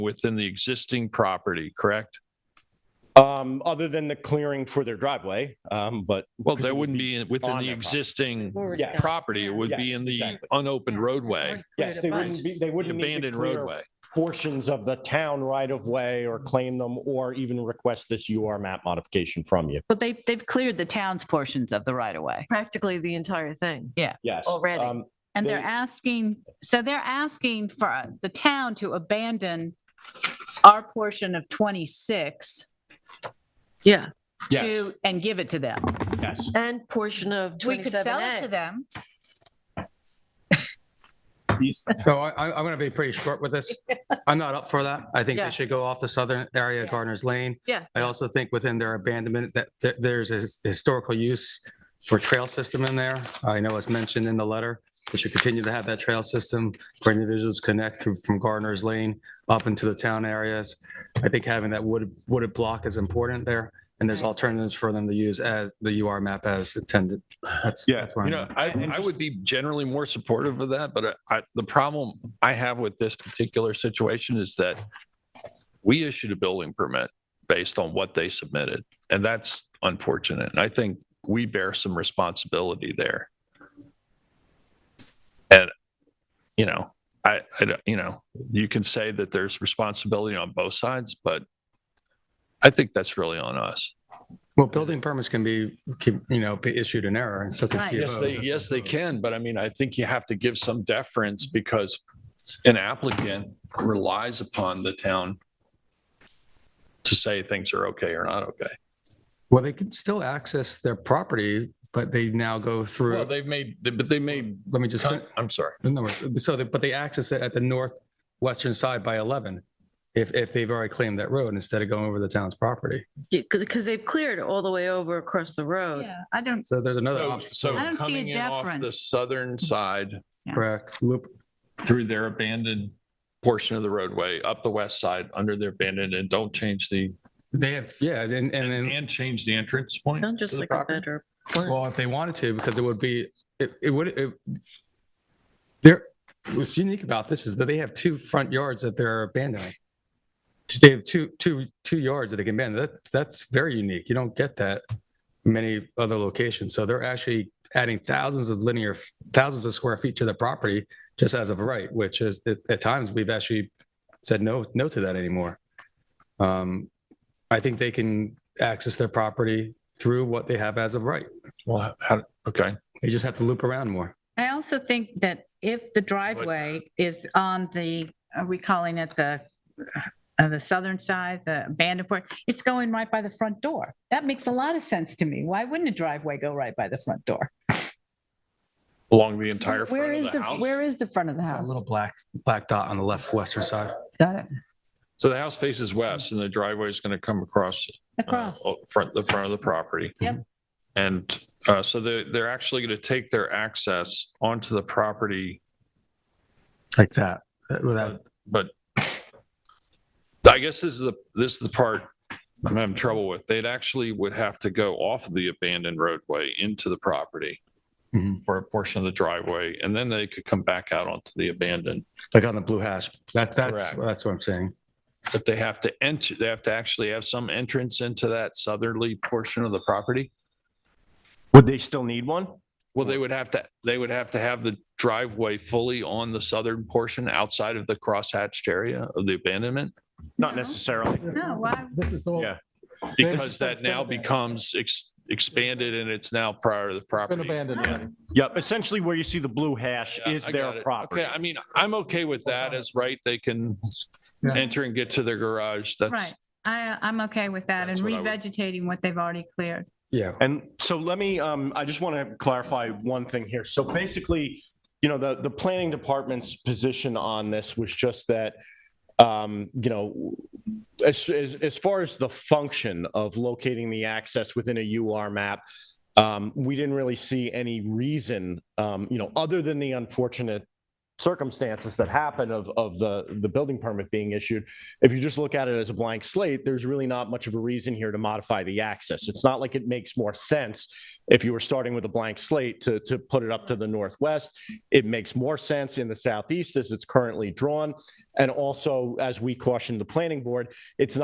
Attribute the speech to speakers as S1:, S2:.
S1: within the existing property, correct?
S2: Um, other than the clearing for their driveway, um, but.
S1: Well,
S2: because it
S1: that
S2: would
S1: wouldn't be within
S2: on
S1: the
S2: their property.
S1: existing
S2: Yes.
S1: property. It would be
S2: Yes,
S1: in the
S2: exactly.
S1: unopened roadway,
S2: Yes, they wouldn't be, they
S1: the
S2: wouldn't need to
S1: abandoned
S2: clear
S1: roadway.
S2: portions of the town right of way or claim them or even request this UR map modification from you.
S3: But they, they've cleared the town's portions of the right of way.
S4: practically the entire thing.
S2: Yes.
S4: Already.
S2: um,
S3: And they're
S2: They-
S3: asking, so they're asking for uh, the town to abandon our portion of 26
S4: Yeah.
S2: Yes,
S3: to, and give it to them.
S2: yes.
S4: And portion of
S3: We could sell it to
S4: 27A.
S3: them.
S5: So I, I- I'm going to be pretty short with this. I'm not up for that. I think
S4: Yeah.
S5: they should go off the southern area of Gardner's Lane.
S4: Yeah.
S5: I also think within their abandonment that th- there's a his- historical use for trail system in there. I know it's mentioned in the letter. We should continue to have that trail system for individuals connect through from Gardner's Lane up into the town areas. I think having that wooded, wooded block is important there. And there's
S3: Right.
S5: alternatives for them to use as the UR map as intended. That's.
S2: Yeah,
S5: that's where
S1: You
S5: I'm
S1: know,
S5: at.
S1: I, I would be generally more supportive of that, but uh, I- I, the problem I have with this particular situation is that we issued a building permit based on what they submitted, and that's unfortunate. And I think we bear some responsibility there. And, you know, I, I, don't- you know, you can say that there's responsibility on both sides, but I think that's really on us.
S5: Well, building permits can be, can, you know, be issued in error and so can
S3: Right.
S5: CFOs.
S1: Yes, they, yes, they can, but I mean, I think you have to give some deference because an applicant relies upon the town to say things are okay or not okay.
S5: Well, they can still access their property, but they now go through,
S1: Well,
S5: let
S1: they've made, but they made,
S5: me just, fin-
S1: I'm sorry.
S5: the number. so, they- but they access it at the northwestern side by 11 if, if they've already claimed that road instead of going over the town's property.
S4: Because they've cleared all the way over across the road.
S3: Yeah, I don't,
S5: So there's another
S1: So,
S5: option,
S1: so
S3: I don't see a
S1: coming in off the
S3: deference.
S1: southern side
S5: correct? Loop,
S1: through their abandoned portion of the roadway, up the west side, under their abandoned, and don't change the,
S5: they have, yeah, and, and then,
S1: and change the entrance point.
S4: Sounds just
S1: to the
S4: like a
S1: property?
S4: better plan.
S5: well, if they wanted to, because it would be, it, it would, it, there, what's unique about this is that they have two front yards that they're abandoning. They have two, two, two yards that they can abandon. That, that's very unique. You don't get that many other locations. So they're actually adding thousands of linear, thousands of square feet to the property just as of right, which is, at, at times, we've actually said no, no to that anymore. Um, I think they can access their property through what they have as of right.
S1: Well, how, okay.
S5: They just have to loop around more.
S3: I also think that if the driveway is on the, are we calling it the, uh, the southern side, the abandoned part, it's going right by the front door. That makes a lot of sense to me. Why wouldn't a driveway go right by the front door?
S1: Along the entire
S3: Where
S1: front
S3: is
S1: of
S3: the,
S1: the house.
S3: where is the front of the
S5: That
S3: house?
S5: little black, black dot on the left western side.
S3: Got it.
S1: So the house faces west and the driveway is going to come across uh,
S3: Across.
S1: o- front, the front of the property.
S3: Yep.
S1: And uh, so they're, they're actually going to take their access onto the property,
S5: Like that. That- Without,
S1: but I guess this is the, this is the part I'm having trouble with. They'd actually would have to go off the abandoned roadway into the property
S5: Mhm.
S1: for a portion of the driveway, and then they could come back out onto the abandoned.
S5: like on the blue hash. That, that's,
S1: Correct.
S5: that's what I'm saying.
S1: But they have to enter, they have to actually have some entrance into that southerly portion of the property?
S2: Would they still need one?
S1: Well, they would have to, they would have to have the driveway fully on the southern portion outside of the crosshatched area of the abandonment.
S2: Not
S3: No.
S2: necessarily.
S3: No, why?
S2: Yeah.
S1: Because that now becomes ex- expanded and it's now prior to the property.
S2: Yep, essentially where you see the blue hash
S1: Yeah,
S2: is
S1: I got
S2: their
S1: it.
S2: property.
S1: Okay, I mean, I'm okay with that as right. They can
S5: Yeah.
S1: enter and get to their garage. That's,
S3: Right. I, I'm okay with that and
S1: That's what I would-
S3: revegetating what they've already cleared.
S5: Yeah.
S2: And so let me, um, I just want to clarify one thing here. So basically, you know, the, the planning department's position on this was just that, um, you know, as, as, as far as the function of locating the access within a UR map, um, we didn't really see any reason, um, you know, other than the unfortunate circumstances that happen of, of the, the building permit being issued. If you just look at it as a blank slate, there's really not much of a reason here to modify the axis. It's not like it makes more sense if you were starting with a blank slate to, to put it up to the northwest. It makes more sense in the southeast as it's currently drawn. And also, as we cautioned the planning board, it's not.